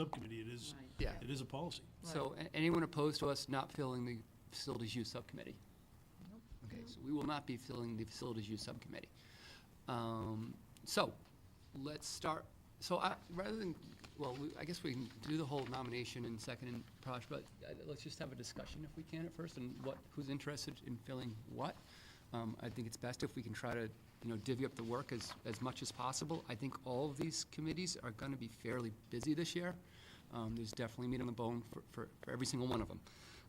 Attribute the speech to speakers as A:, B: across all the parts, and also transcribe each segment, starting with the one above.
A: subcommittee, it is,
B: Right.
C: Yeah.
A: it is a policy.
D: So a- anyone opposed to us not filling the facilities use subcommittee? Okay, so we will not be filling the facilities use subcommittee. Um, So, let's start, so I, rather than, well, we- I guess we can do the whole nomination and second and Praj, but uh, let's just have a discussion if we can at first, and what, who's interested in filling what. Um, I think it's best if we can try to, you know, divvy up the work as, as much as possible. I think all of these committees are gonna be fairly busy this year. Um, There's definitely meat on the bone for, for, for every single one of them.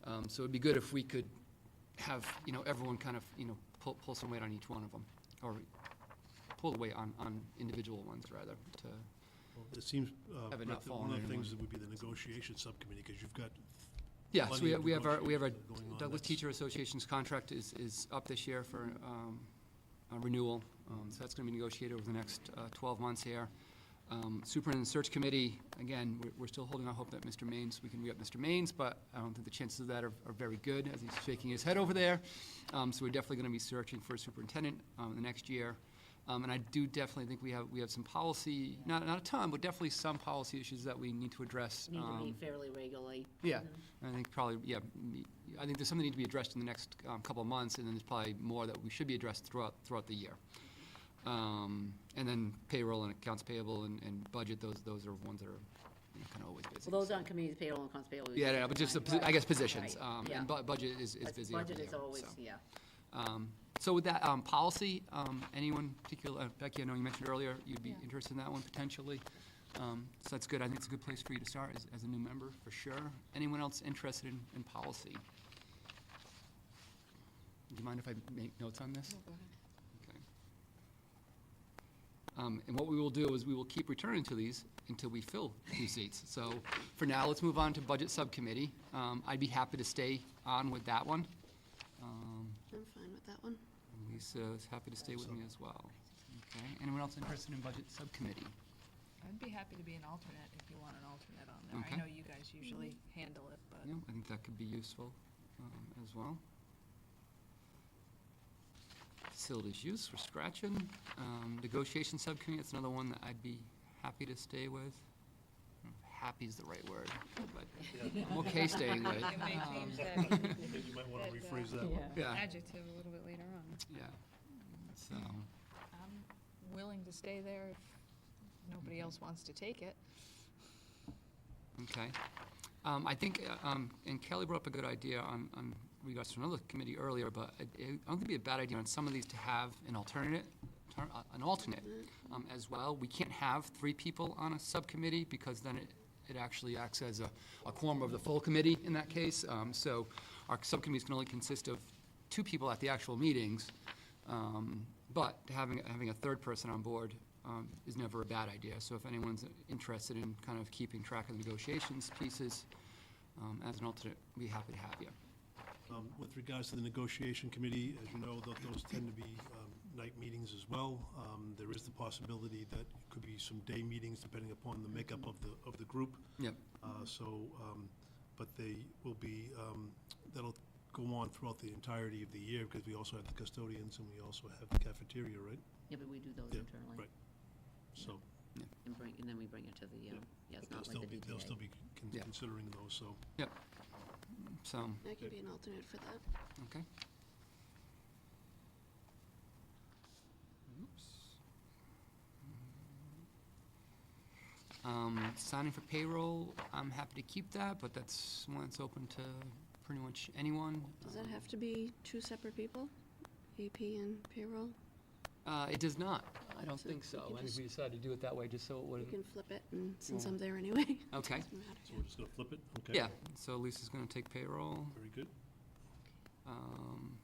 D: Um, So it'd be good if we could have, you know, everyone kind of, you know, pull, pull some weight on each one of them, or pull the weight on, on individual ones rather, to,
A: It seems, uh,
D: Have it
A: Brett,
D: not
A: that one of
D: fallen on
A: the
D: anyone.
A: things that would be the negotiation subcommittee, because you've got,
D: yeah, so
A: Plenty of
D: we have, we have our, we have our
A: negotiations going on,
D: Douglas
A: that's-
D: Teacher Association's contract is, is up this year for, um, a renewal, um, so that's gonna be negotiated over the next, uh, twelve months here. Um, Superintendent Search Committee, again, we're, we're still holding out hope that Mr. Maines, we can re-up Mr. Maines, but I don't think the chances of that are, are very good, as he's shaking his head over there. Um, so we're definitely gonna be searching for a superintendent, um, the next year. Um, and I do definitely think we have, we have some policy, not, not a ton, but definitely some policy issues that we need to address.
B: Need to
D: um,
B: meet fairly regularly.
D: yeah, and I think probably, yeah, me- I think there's something need to be addressed in the next um, couple of months, and then there's probably more that we should be addressed throughout, throughout the year. Um, And then payroll and accounts payable and, and budget, those, those are ones that are kind of always busy.
B: Well, those aren't committees, payroll and accounts payable.
D: Yeah, yeah, but just, the
B: Right.
D: posi- I guess, positions,
B: Right.
D: um,
B: Yeah.
D: and bu- budget is, is
B: That's-
D: busy every year.
B: Budget is always,
D: so.
B: yeah.
D: Um, So with that, um, policy, um, anyone particular, uh, Becky, I know you mentioned earlier, you'd be
B: Yeah.
D: interested in that one potentially. Um, So that's good, I think it's a good place for you to start as, as a new member, for sure. Anyone else interested in, in policy? Do you mind if I make notes on this? Okay. Um, And what we will do is we will keep returning to these until we fill two seats. So for now, let's move on to Budget Subcommittee. Um, I'd be happy to stay on with that one. Um,
E: I'm fine with that one.
D: and Lisa is happy to stay with me as well. Okay, anyone else interested in Budget Subcommittee?
F: I'd be happy to be an alternate if you want an alternate on there.
D: Okay.
F: I know you guys usually handle it, but.
D: Yeah, I think that could be useful um, as well. Facilities use, we're scratching. Um, Negotiation Subcommittee, that's another one that I'd be happy to stay with. I don't know if Happy is the right word, but I'm okay staying with it.
G: It may
D: Um,
G: change that
A: maybe you might want to
G: That, uh,
A: rephrase that one.
D: Yeah,
G: adjective a little bit later on.
D: yeah. So,
F: I'm willing to stay there if nobody else wants to take it.
D: okay. Um, I think, uh, um, and Kelly brought up a good idea on, on regards to another committee earlier, but I, I don't think it'd be a bad idea on some of these to have an alternate, ter- uh, an alternate, um, as well. We can't have three people on a subcommittee because then it, it actually acts as a, a quorum of the full committee in that case. Um, so our subcommittees can only consist of two people at the actual meetings. Um, but having, having a third person on board, um, is never a bad idea. So if anyone's interested in kind of keeping track of the negotiations pieces, um, as an alternate, we'd be happy to have you.
A: Um, With regards to the negotiation committee, as you know, tho- those tend to be um, night meetings as well. Um, There is the possibility that it could be some day meetings, depending upon the makeup of the, of the group.
D: Yep.
A: Uh, So, um, but they will be, um, that'll go on throughout the entirety of the year, because we also have the custodians and we also have the cafeteria, right?
B: Yeah, but we do those
A: Yeah,
B: internally.
A: right. So
B: And bring, and then we bring it to the, um, yeah, it's
A: they'll
B: not like
A: still
B: the
A: be, they'll still be
B: DTA.
A: con-
D: Yeah.
A: considering those, so.
D: Yep. So,
E: I could be an alternate for that.
D: okay. Um, signing for payroll, I'm happy to keep that, but that's one that's open to pretty much anyone. Um,
E: Does that have to be two separate people? AP and payroll?
D: Uh, it does not. I don't
E: So
D: think
E: we
D: so.
E: can
D: I think
E: just-
D: we decided to do it that way just so it
E: You
D: wouldn't.
E: can flip it, and since
D: Yeah.
E: I'm there anyway. it
D: Okay.
E: doesn't matter.
A: So we're just going to flip it? Okay.
D: Yeah, so Lisa's gonna take payroll.
A: Very good.
D: Um,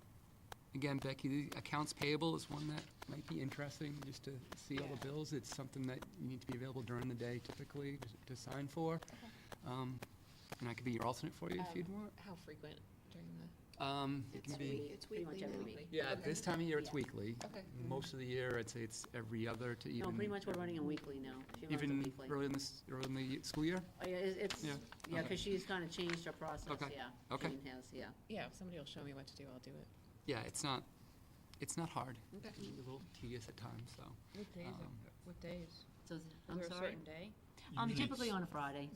D: Again, Becky, the accounts payable is one that might be interesting, just to see all the bills. It's something that you need to be available during the day typically to- to sign for. Um, And I could be your alternate for you if
B: Um,
D: you'd want.
G: How frequent during the?
D: Um, It
E: It's
D: can
E: week-
D: be,
E: it's
B: Pretty much
E: weekly
B: every
E: now.
B: week.
D: yeah, this time of year it's weekly.
G: Okay.
D: Most of the year, I'd say it's every other to even. Mm-hmm.
B: No, pretty much we're running a weekly now. She runs a
D: Even
B: weekly.
D: early in this, early in the ye- school year?
B: Oh, yeah, it- It's,
D: Yeah,
B: yeah,
D: okay.
B: because she's kind of changed her process,
D: Okay,
B: yeah.
D: okay.
B: Jean has, yeah.
G: Yeah, if somebody will show me what to do, I'll do it.
D: Yeah, it's not, it's not hard.
G: Okay.
D: It's a little tedious at times, so.
G: What
D: days are- Um,
G: what days?
B: So, I'm sorry.
G: day?
B: Um,
A: Usually
B: Typically
A: it's-
B: on a Friday.